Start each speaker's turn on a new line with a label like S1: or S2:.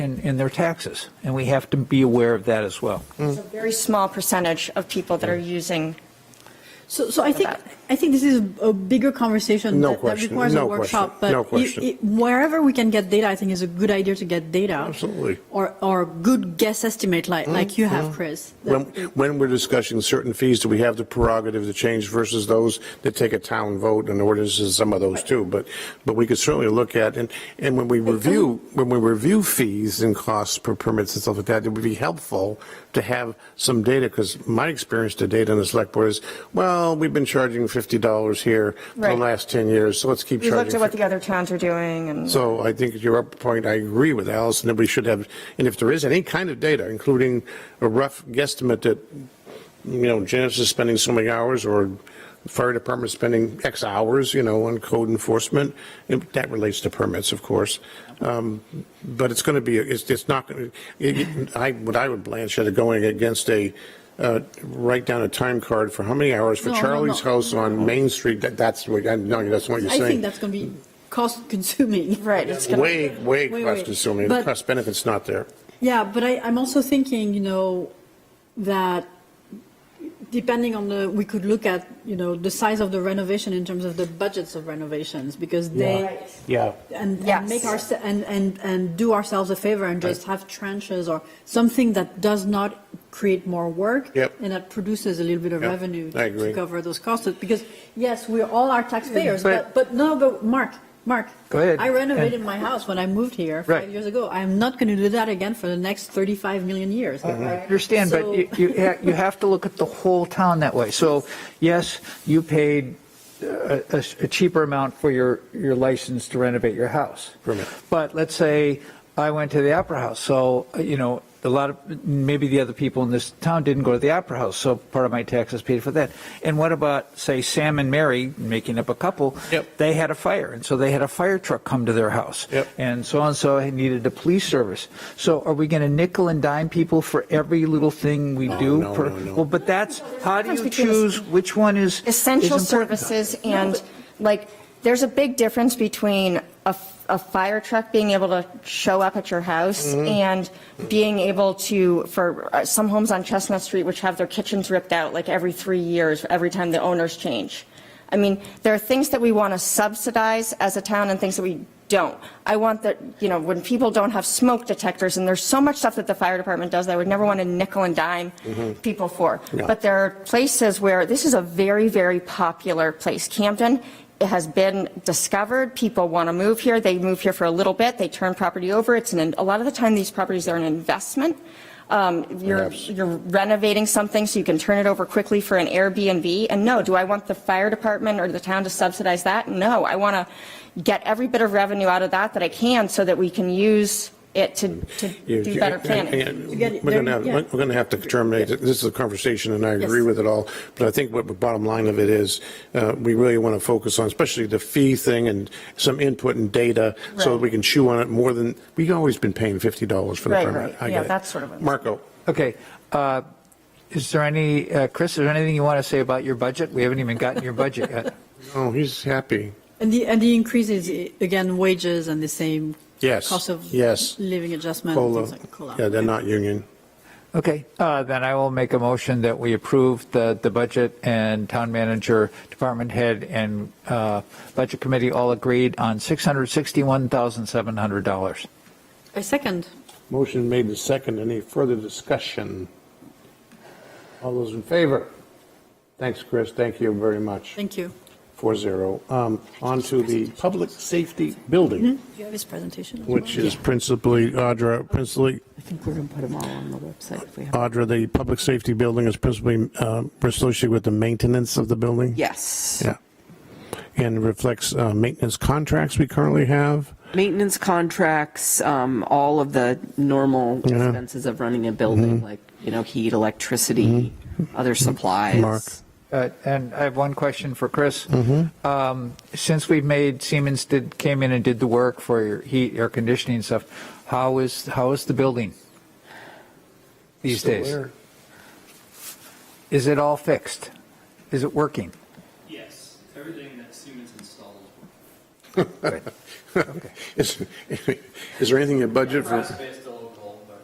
S1: in, in their taxes, and we have to be aware of that as well.
S2: It's a very small percentage of people that are using
S3: So, so I think,
S2: that.
S3: I think this is a bigger conversation
S4: No
S3: that that
S4: question,
S3: requires a
S4: no question,
S3: workshop.
S4: no
S3: But you-
S4: question.
S3: it- wherever we can get data, I think is a good idea to get data.
S4: Absolutely. Mm-hmm.
S3: Or, or good guess estimate like, like you have, Chris. That-
S4: When, when we're discussing certain fees, do we have the prerogative to change versus those that take a town vote and ordinances, some of those too? But, but we could certainly look at, and, and when we review, when we review fees and costs per permits and stuff like that, it would be helpful to have some data, because my experience to date on the select board is, well, we've been charging $50 here for the
S2: Right.
S4: last 10 years, so let's keep
S2: We
S4: charging.
S2: looked at what
S4: 50.
S2: the other towns are doing and.
S4: So I think your upper point, I agree with Allison, that we should have, and if there is any kind of data, including a rough guesstimate that, you know, Janice is spending so many hours, or fire department spending X hours, you know, on code enforcement, and that relates to permits, of course. Um, But it's going to be, it's, it's not, gonna- it- it- I, what I would blanch at going against a, uh, write down a time card for how many hours for
S3: No, no,
S4: Charlie's
S3: no.
S4: house on Main Street, that, that's what, I no, that's what you're
S3: I
S4: saying.
S3: think that's going to be cost consuming.
S2: Right, it's gonna-
S4: Way, way
S3: Wait,
S4: cost
S3: wait.
S4: consuming, the
S3: But-
S4: cost benefit's not there.
S3: Yeah, but I, I'm also thinking, you know, that depending on the, we could look at, you know, the size of the renovation in terms of the budgets of renovations because they,
S4: Yeah.
S3: and, and
S2: Yes.
S3: make our and, and and do ourselves a favor and just have trenches or something that does not create more work
S4: Yep.
S3: and that produces a little bit of
S4: Yep,
S3: revenue
S4: I
S3: to
S4: agree.
S3: cover those costs because yes we're all our taxpayers
S1: But-
S3: but, but no but mark mark
S1: Go ahead.
S3: i renovated my house when i moved here five
S1: Right.
S3: years ago i'm not going to do that again for the next 35 million years
S1: I understand, but you, you ha- you have to look at the whole town that way. So, yes, you paid a, a a cheaper amount for your, your license to renovate your house.
S4: Permit.
S1: But let's say I went to the Opera House, so, uh, you know, a lot of, maybe the other people in this town didn't go to the Opera House, so part of my taxes paid for that. And what about, say, Sam and Mary, making up a couple?
S4: Yep.
S1: They had a fire, and so they had a fire truck come to their house.
S4: Yep.
S1: And so-and-so had needed a police service. So are we going to nickel and dime people for every little thing we do?
S4: Oh, no,
S1: per-
S4: no, no.
S1: Well, but that's, how do you
S2: difference between
S1: choose which one is? is
S2: essential
S1: important?
S2: services and like, there's a big difference between a, a fire truck being able to show up at your house and being able to, for uh, some homes on Chestnut Street, which have their kitchens ripped out like every three years, every time the owners change. I mean, there are things that we want to subsidize as a town and things that we don't. I want that, you know, when people don't have smoke detectors, and there's so much stuff that the fire department does that I would never want to nickel and dime people for.
S4: Yeah.
S2: But there are places where, this is a very, very popular place. Camden it has been discovered, people want to move here, they move here for a little bit, they turn property over, it's an, a lot of the time, these properties are an investment. Um, You're,
S4: Perhaps.
S2: you're renovating something so you can turn it over quickly for an Airbnb. And no, do I want the fire department or the town to subsidize that? No, I want to get every bit of revenue out of that that I can so that we can use it to, to do better planning.
S4: And- and
S3: get it
S4: We're going to
S3: there,
S4: have,
S3: yeah.
S4: we're going to have to terminate, it. this is a conversation, and I agree
S3: Yes.
S4: with it all, but I think what the bottom line of it is, uh, we really want to focus on, especially the fee thing and some input and data, so that we can chew on it more than, we've always been paying $50 for the
S2: Right,
S4: permit.
S2: right.
S4: I
S2: Yeah,
S4: get it.
S2: that's sort of what-
S4: Marco,
S1: Okay. uh, Is there any, uh, Chris, is there anything you want to say about your budget? We haven't even gotten your budget yet.
S4: oh, he's happy.
S3: and the and the increase is again wages and the same
S4: Yes,
S3: cost of
S4: yes.
S3: living adjustment and
S4: COLA,
S3: things like COLA.
S4: yeah, they're not union.
S1: Okay, uh, then I will make a motion that we approve the, the budget and town manager, department head, and uh, budget committee all agreed on $661,700.
S3: a second
S4: Motion made and second. Any further discussion? All those in favor? Thanks, Chris. Thank you very much.
S3: thank you
S4: Four zero. Um, on to the public safety building,
S3: do you have his presentation as
S4: which
S3: well?
S4: is principally, Audra, principally,
S5: I think we're going to put them all on the website if we have.
S4: Audra, the public safety building is principally, um, associated with the maintenance of the building?
S5: Yes.
S4: Yeah. And reflects, uh, maintenance contracts we currently have.
S5: Maintenance contracts, um, all of the normal expenses of running a building,
S4: Mm-hmm.
S5: like, you know, heat, electricity, other
S4: Mark.
S5: supplies.
S1: Uh, And I have one question for Chris. Um, Since we've made, Siemens did, came in and did the work for your heat, air conditioning and stuff, how is, how is the building these days? Is it all fixed? Is it working?
S6: Yes, everything that Siemens installed.
S4: Is, is there anything in budget for?
S6: Price based